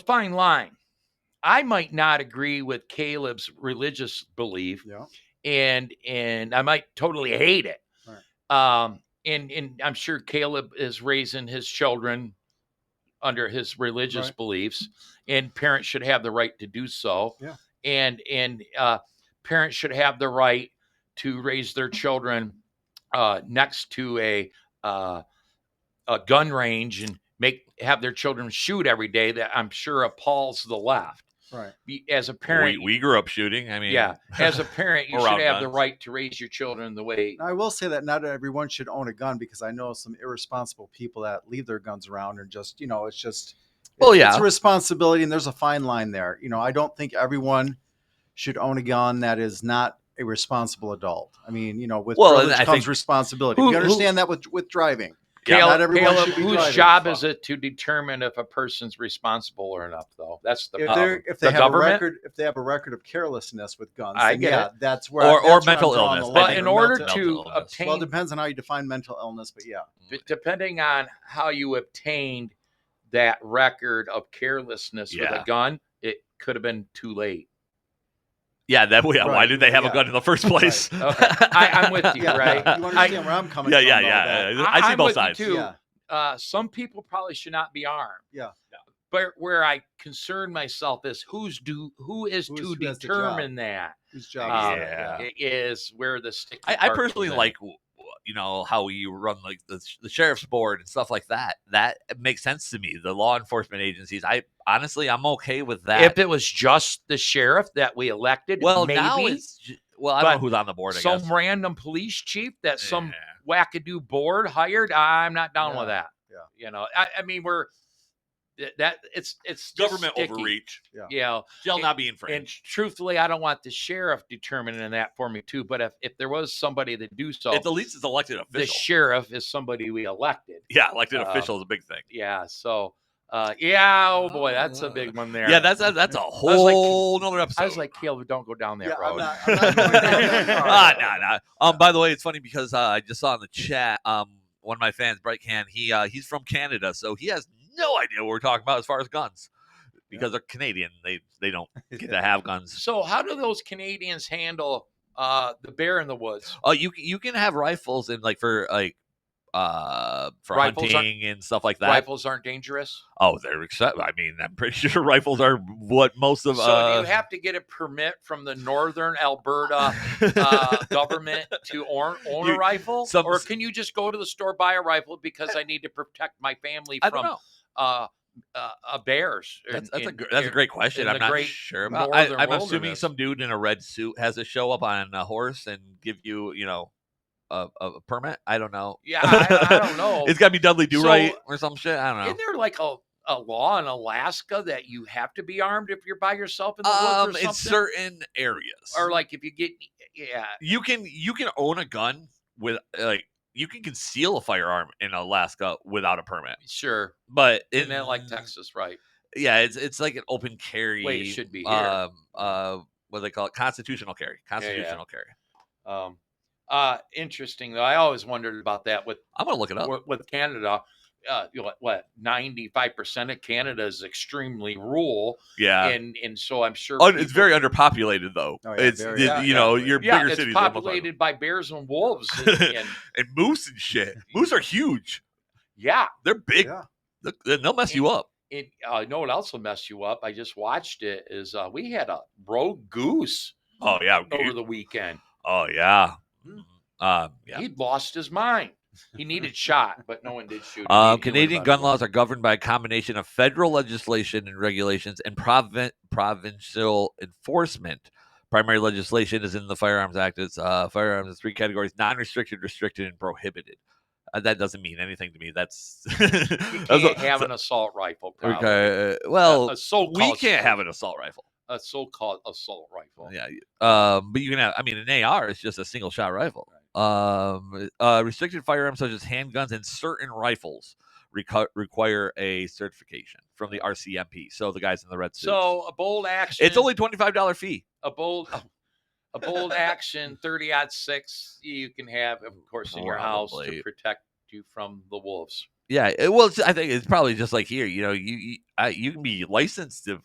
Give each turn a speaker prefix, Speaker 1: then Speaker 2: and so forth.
Speaker 1: fine line. I might not agree with Caleb's religious belief,
Speaker 2: Yeah.
Speaker 1: and and I might totally hate it. Um, and and I'm sure Caleb is raising his children under his religious
Speaker 2: Right.
Speaker 1: beliefs, and parents should have the right to do so.
Speaker 2: Yeah.
Speaker 1: And and uh, parents should have the right to raise their children uh, next to a uh, a gun range and make have their children shoot every day. That I'm sure appalls the left.
Speaker 2: Right.
Speaker 1: Be- As a parent,
Speaker 3: we, we grew up shooting. I mean,
Speaker 1: yeah, as a parent, you
Speaker 3: We're
Speaker 1: should have the
Speaker 3: outgunned.
Speaker 1: right to raise your children the way
Speaker 2: Now, I will say that not everyone should own a gun because I know some irresponsible people that leave their guns around and just, you know, it's just,
Speaker 3: Well,
Speaker 2: it's- it's
Speaker 3: yeah.
Speaker 2: a responsibility and there's a fine line there. You know, I don't think everyone should own a gun that is not a responsible adult. I mean, you know, with
Speaker 3: Well, and
Speaker 2: privilege
Speaker 3: I
Speaker 2: comes
Speaker 3: think-
Speaker 2: responsibility.
Speaker 1: Who-
Speaker 2: we
Speaker 1: who-
Speaker 2: understand that with with driving.
Speaker 3: Yeah,
Speaker 1: Caleb,
Speaker 2: not everyone
Speaker 1: Caleb,
Speaker 2: should be
Speaker 1: whose
Speaker 2: driving.
Speaker 1: job is
Speaker 2: Fuck.
Speaker 1: it to determine if a person's responsible or not? Though that's the
Speaker 2: If
Speaker 1: problem.
Speaker 2: they if they
Speaker 1: The
Speaker 2: have
Speaker 1: government?
Speaker 2: a record if they have a record of carelessness with guns,
Speaker 1: I
Speaker 2: then
Speaker 1: get
Speaker 2: yeah,
Speaker 1: it.
Speaker 2: that's where
Speaker 3: or
Speaker 2: that's where
Speaker 3: or
Speaker 2: I'm
Speaker 3: mental
Speaker 2: drawing the
Speaker 3: illness. I
Speaker 2: line.
Speaker 1: But
Speaker 3: think
Speaker 1: in
Speaker 3: mental-
Speaker 1: order
Speaker 3: mental
Speaker 1: to
Speaker 3: illness.
Speaker 1: obtain-
Speaker 2: well, it depends on how you define mental illness, but yeah.
Speaker 1: D- depending on how you obtained that record of carelessness with
Speaker 3: Yeah.
Speaker 1: a gun, it could have been too late.
Speaker 3: yeah, that yeah, why
Speaker 2: Right,
Speaker 3: did they have
Speaker 2: yeah.
Speaker 3: a gun in the first place?
Speaker 1: Okay. I- I'm with you,
Speaker 2: Yeah,
Speaker 1: right?
Speaker 2: You understand
Speaker 1: I-
Speaker 2: where I'm coming
Speaker 3: Yeah,
Speaker 2: from.
Speaker 3: yeah,
Speaker 2: though,
Speaker 3: yeah,
Speaker 2: that-
Speaker 3: yeah.
Speaker 1: I-
Speaker 3: I see
Speaker 1: I'm with
Speaker 3: both
Speaker 1: you
Speaker 3: sides.
Speaker 1: too. Uh, some people probably should not be armed.
Speaker 2: Yeah.
Speaker 1: But where I concern myself is who's do who is
Speaker 2: Who is-
Speaker 1: to
Speaker 2: who has the job?
Speaker 1: determine that
Speaker 2: Whose job
Speaker 1: Um,
Speaker 2: is that?
Speaker 3: yeah.
Speaker 1: i- is where the stick.
Speaker 3: I, I personally like w- w- you know how you run like the, sh- the sheriff's board and stuff like that. That makes sense to me. The law enforcement agencies. I honestly, I'm okay with that.
Speaker 1: If it was just the sheriff that we elected,
Speaker 3: well,
Speaker 1: maybe
Speaker 3: now it's j- well, I don't know
Speaker 1: but
Speaker 3: who's on the board. I
Speaker 1: some
Speaker 3: guess.
Speaker 1: random police chief that some
Speaker 3: Yeah.
Speaker 1: wackadoo board hired. I'm not down with that.
Speaker 2: yeah.
Speaker 1: You know, I, I mean, we're th- that it's it's just
Speaker 3: government
Speaker 1: sticky,
Speaker 3: overreach
Speaker 1: You know,
Speaker 3: shall
Speaker 1: And-
Speaker 3: not be
Speaker 1: and
Speaker 3: infringed.
Speaker 1: truthfully, I don't want the sheriff determining that for me too. But if if there was somebody to do so,
Speaker 3: At the least, it's elected
Speaker 1: the
Speaker 3: official.
Speaker 1: sheriff is somebody we elected.
Speaker 3: yeah, elected
Speaker 1: uh,
Speaker 3: official is a big thing.
Speaker 1: Yeah. So, uh, yeah. Oh boy, that's a
Speaker 3: Uh,
Speaker 1: big one there.
Speaker 3: Yeah, that's that's, that's a whole nother episode.
Speaker 1: I was like, Caleb, don't go down that
Speaker 2: Yeah, I'm
Speaker 1: road.
Speaker 2: not- I'm not going down that road.
Speaker 3: ah, nah, nah. Um, by the way, it's funny because uh, I just saw in the chat, um, one of my fans, Bright Can, he uh, he's from Canada, so he has no idea what we're talking about as far as guns, because they're Canadian. They they don't get to have guns.
Speaker 1: So, how do those Canadians handle uh, the bear in the woods?
Speaker 3: Oh, you you can have rifles and like for like uh for
Speaker 1: Rifles aren't-
Speaker 3: hunting and stuff like that.
Speaker 1: Rifles aren't dangerous.
Speaker 3: Oh, they're except. I mean, I'm pretty sure rifles are what most of.
Speaker 1: so,
Speaker 3: uh,
Speaker 1: do you have to get a permit from the Northern Alberta uh, government to own, own a
Speaker 3: You-
Speaker 1: rifle,
Speaker 3: some-
Speaker 1: or can you just go to the store buy a rifle because I need to protect my family
Speaker 3: I don't
Speaker 1: from
Speaker 3: know.
Speaker 1: uh, uh, uh, bears? in-
Speaker 3: That's, that's a
Speaker 1: in-
Speaker 3: gr- that's a
Speaker 1: in-
Speaker 3: great question.
Speaker 1: in
Speaker 3: I'm
Speaker 1: the
Speaker 3: not
Speaker 1: great
Speaker 3: sure. About. I,
Speaker 1: northern
Speaker 3: I'm assuming
Speaker 1: wilderness.
Speaker 3: some dude in a red suit has to show up on a horse and give you, you know, a, a a permit. I don't know.
Speaker 1: Yeah, I, I don't know.
Speaker 3: it's got to be Dudley Do Right
Speaker 1: So-
Speaker 3: or some shit. I don't know.
Speaker 1: Isn't there like a, a law in Alaska that you have to be armed if you're by yourself in the
Speaker 3: um,
Speaker 1: woods or something?
Speaker 3: in certain areas,
Speaker 1: or like if you get yeah,
Speaker 3: you can you can own a gun with like you can conceal a firearm in Alaska without a permit,
Speaker 1: sure.
Speaker 3: but
Speaker 1: Isn't that like
Speaker 3: in-
Speaker 1: Texas, right?
Speaker 3: Yeah, it's it's like an open carry.
Speaker 1: Way it should be here.
Speaker 3: Um, uh, what do they call it? Constitutional carry.
Speaker 1: yeah.
Speaker 3: Constitutional carry.
Speaker 1: Um, uh, interesting though. I always wondered about that with
Speaker 3: I'm gonna look it up.
Speaker 1: with, with Canada. Uh, you know, what- what ninety five percent of Canada is extremely rural,
Speaker 3: yeah.
Speaker 1: and and so I'm sure
Speaker 3: Un- it's
Speaker 1: people-
Speaker 3: very underpopulated though.
Speaker 2: Oh, yeah,
Speaker 3: it's
Speaker 2: very
Speaker 3: the-
Speaker 1: Yeah,
Speaker 3: you know
Speaker 2: yeah.
Speaker 3: your
Speaker 1: yeah,
Speaker 3: bigger
Speaker 1: it's
Speaker 3: cities are almost like-
Speaker 1: populated by bears and wolves, and, and
Speaker 3: and moose and shit. Moose are huge.
Speaker 1: yeah,
Speaker 3: They're big.
Speaker 2: Yeah.
Speaker 3: Look, they- They'll mess you up.
Speaker 1: it uh, you know what else will mess you up? I just watched it. Is uh, we had a rogue goose
Speaker 3: Oh yeah.
Speaker 1: over
Speaker 3: you-
Speaker 1: the weekend.
Speaker 3: oh yeah. Mhm. Um, yeah.
Speaker 1: He'd lost his mind. He needed shot, but no one did shoot. him.
Speaker 3: Um,
Speaker 1: He- he would've
Speaker 3: Canadian
Speaker 1: been
Speaker 3: gun
Speaker 1: cool.
Speaker 3: laws are governed by a combination of federal legislation and regulations and provin- provincial enforcement. Primary legislation is in the Firearms Act. It's uh, firearms in three categories: non-restricted, restricted, and prohibited. Uh, that doesn't mean anything to me. That's,
Speaker 1: You
Speaker 3: that's a-
Speaker 1: can't have an assault rifle. Probably.
Speaker 3: okay. uh,
Speaker 1: A-
Speaker 3: Well,
Speaker 1: a so-called,
Speaker 3: we can't have an assault rifle.
Speaker 1: a so-called assault rifle.
Speaker 3: Yeah. Um, but you can have, I mean, an AR is just a single shot rifle. Um, uh, restricted firearms such as handguns and certain rifles reco- require a certification from the RCMP. So the guys in the red suits.
Speaker 1: So a bold action.
Speaker 3: it's only $25 fee.
Speaker 1: a bold, oh, a bold action. Thirty odd six. You can have, of course, in your house to
Speaker 3: Probably.
Speaker 1: protect you from the wolves.
Speaker 3: Yeah, it, well, it's, I think it's probably just like here. You know, you you, I, you can be licensed to